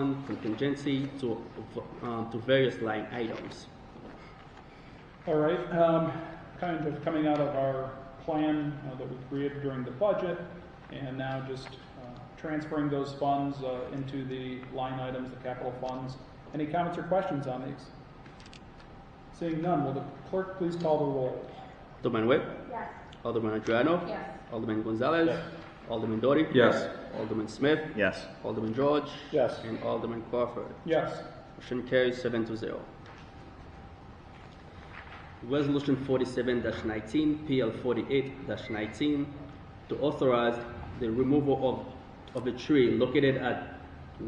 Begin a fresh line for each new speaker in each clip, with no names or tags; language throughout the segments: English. fund from contingency to, um, to various line items.
All right, um, kind of coming out of our plan uh, that we created during the budget, and now just uh, transferring those funds uh, into the line items, the capital funds. Any comments or questions on these? Seeing none, will the clerk please call the roll?
Alderman Webb,
Yes.
Alderman Adriano.
Yes.
Alderman Gonzalez.
Yes.
Alderman Dory.
Yes.
Alderman Smith.
Yes.
Alderman George.
Yes.
And Alderman Crawford.
Yes.
Motion carries seven to zero. Resolution forty-seven nineteen, PL forty-eight nineteen, to authorize the removal of, of a tree located at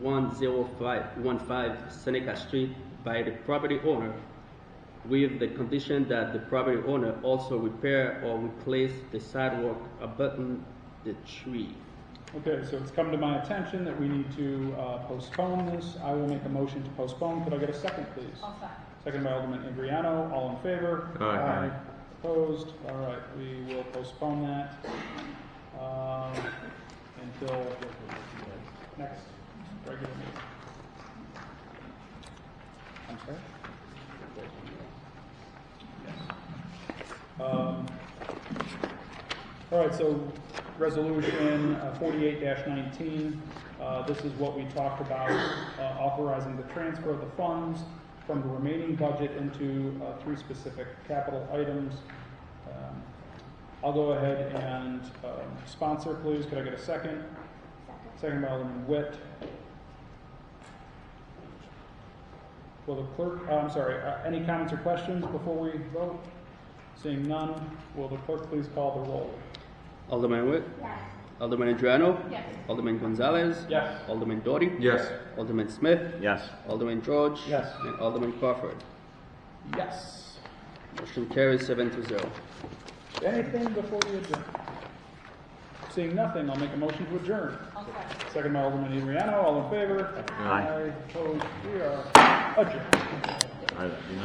one zero five, one five Seneca Street by the property owner with the condition that the property owner also repair or replace the sidewalk abutting the tree.
Okay, so it's come to my attention that we need to uh, postpone this. I will make a motion to postpone. Could I get a second, please?
I'll second.
Second by Alderman Adriano, all in favor?
Aye.
Opposed? All right, we will postpone that um, until next regular meeting. I'm sorry? Um, All right, so resolution uh, forty-eight nineteen, uh, this is what we talked about, uh, authorizing the transfer of the funds from the remaining budget into uh, three specific capital items. Um, I'll go ahead and um, sponsor, please, could I get a second? Second by Alderman Witt. Will the clerk, uh, I'm sorry, uh, any comments or questions before we vote? Seeing none, will the clerk please call the roll?
Alderman Witt,
Yes.
Alderman Adriano.
Yes.
Alderman Gonzalez.
Yes.
Alderman Dory.
Yes.
Alderman Smith.
Yes.
Alderman George.
Yes.
And Alderman Crawford.
Yes.
Motion carries seven to zero.
Anything before we adjourn? Seeing nothing, I'll make a motion to adjourn.
I'll second.
Second by Alderman Adriano, all in favor?
Aye.
Opposed, we are adjourned.
I- you know-